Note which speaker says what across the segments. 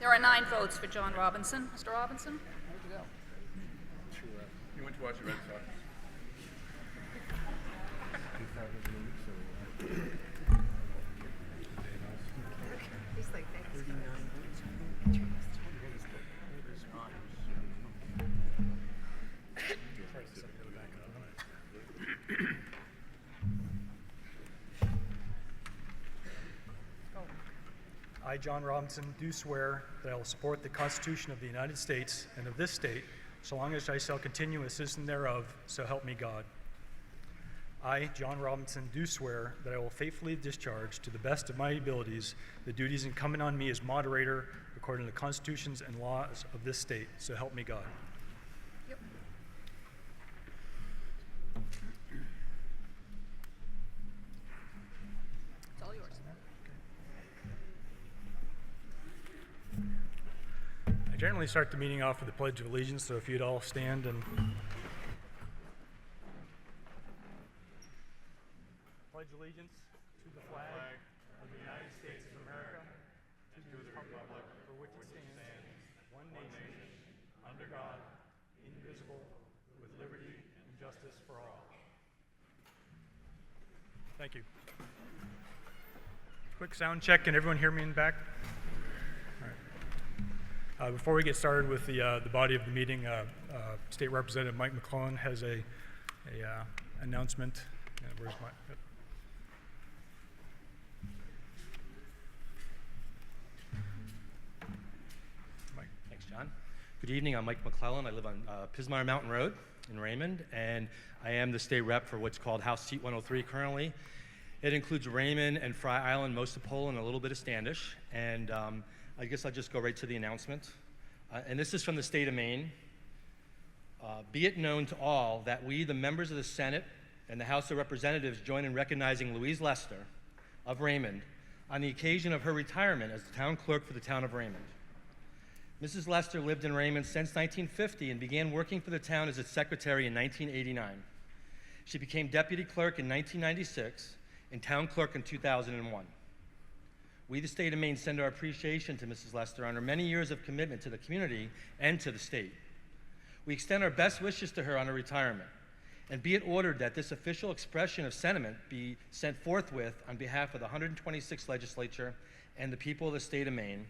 Speaker 1: There are nine votes for John Robinson. Mr. Robinson? Where'd you go?
Speaker 2: You went to watch the Red Sox.
Speaker 3: I, John Robinson, do swear that I will support the Constitution of the United States and of this state, so long as I shall continue a citizen thereof, so help me God. I, John Robinson, do swear that I will faithfully discharge, to the best of my abilities, the duties incumbent on me as moderator according to the constitutions and laws of this state, so help me God.
Speaker 1: Yep. It's all yours.
Speaker 3: I generally start the meeting off with the Pledge of Allegiance, so if you'd all stand and. Pledge allegiance to the flag of the United States of America, to the republic for which it stands, one nation, under God, indivisible, with liberty and justice for all. Thank you. Quick sound check. Can everyone hear me in back? Uh, Before we get started with the, uh, the body of the meeting, uh, uh, State Representative Mike McClellan has a, a uh, announcement. Uh, Where's my? yep. Mike,
Speaker 4: Thanks, John. Good evening. I'm Mike McClellan. I live on uh, Pismire Mountain Road in Raymond, and I am the state rep for what's called House Seat 103 currently. It includes Raymond and Fry Island, most of Poland, and a little bit of Standish. And um, I guess I'll just go right to the announcement. Uh, and this is from the state of Maine. Uh, be it known to all that we, the members of the Senate and the House of Representatives, join in recognizing Louise Lester of Raymond on the occasion of her retirement as the town clerk for the town of Raymond. Mrs. Lester lived in Raymond since 1950 and began working for the town as its secretary in 1989. She became deputy clerk in 1996 and town clerk in 2001. We, the state of Maine, send our appreciation to Mrs. Lester on her many years of commitment to the community and to the state. We extend our best wishes to her on her retirement, and be it ordered that this official expression of sentiment be sent forthwith on behalf of the 126th Legislature and the people of the state of Maine.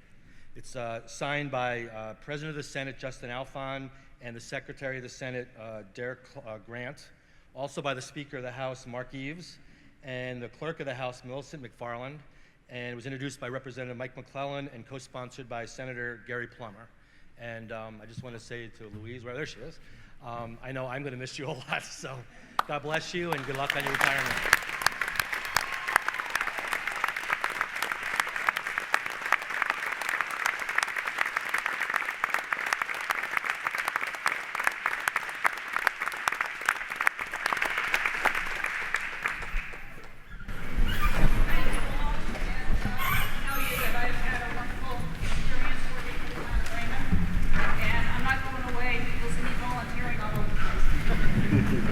Speaker 4: It's uh, signed by uh, President of the Senate Justin Alfon and the Secretary of the Senate uh, Derek Cl- uh, Grant, also by the Speaker of the House Mark Eves and the Clerk of the House Millicent McFarland, and it was introduced by Representative Mike McClellan and co-sponsored by Senator Gary Plummer. And um, I just want to say to Louise, well, there she is. Um, I know I'm going to miss you a lot, so God bless you and good luck on your retirement.
Speaker 5: tell you that I've had a wonderful experience working with John Raymond, and I'm not going away. You'll see me volunteering all over the place.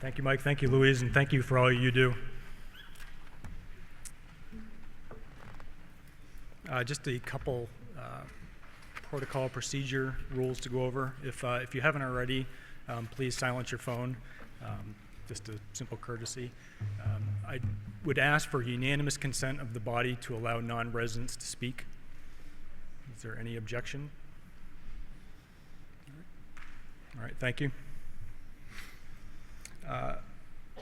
Speaker 3: Thank you, Mike. Thank you, Louise, and thank you for all you do. Uh, Just a couple uh, protocol procedure rules to go over. If, uh, if you haven't already, um, please silence your phone, um, just a simple courtesy. Um, I would ask for unanimous consent of the body to allow non-residents to speak. Is there any objection? All right, thank you. Uh,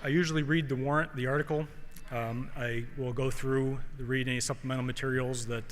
Speaker 3: I usually read the warrant, the article. Um, I will go through, read any supplemental materials that